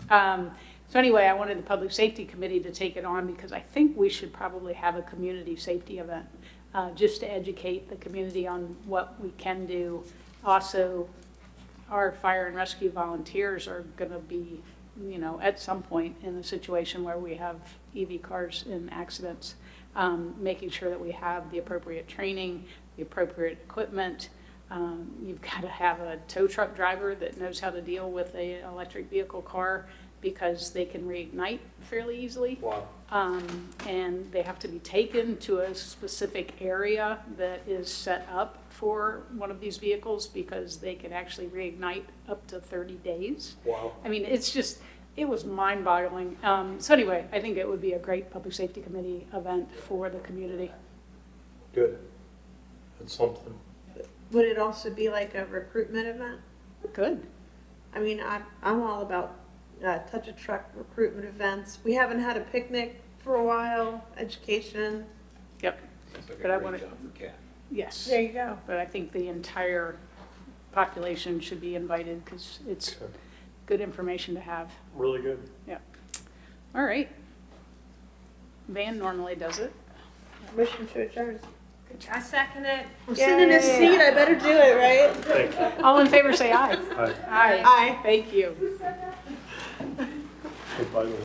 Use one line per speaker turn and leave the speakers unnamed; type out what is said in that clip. Um, So anyway, I wanted the Public Safety Committee to take it on because I think we should probably have a community safety event, uh, just to educate the community on what we can do. Also, our fire and rescue volunteers are going to be, you know, at some point in a situation where we have EV cars in accidents, um, making sure that we have the appropriate training, the appropriate equipment. Um, You've got to have a tow truck driver that knows how to deal with an electric vehicle car because they can reignite fairly easily.
Wow.
Um, and they have to be taken to a specific area that is set up for one of these vehicles because they can actually reignite up to 30 days.
Wow.
I mean, it's just, it was mind-boggling. Um, So anyway, I think it would be a great Public Safety Committee event for the community.
Good. That's something.
Would it also be like a recruitment event?
Good.
I mean, I, I'm all about uh, touch a truck recruitment events. We haven't had a picnic for a while, education.
Yep,
Sounds like a
But I
great
wanna-
job for Kat.
yes.
There you go.
But I think the entire population should be invited because it's
Okay.
good information to have.
Really good.
All right. Van normally does it.
Motion to adjourn.
I second it.
I'm sitting in a
Yay.
seat, I better do it, right?
Thank you.
All in favor, say aye.
Hi.
Aye.
Aye.
Thank you.
Goodbye.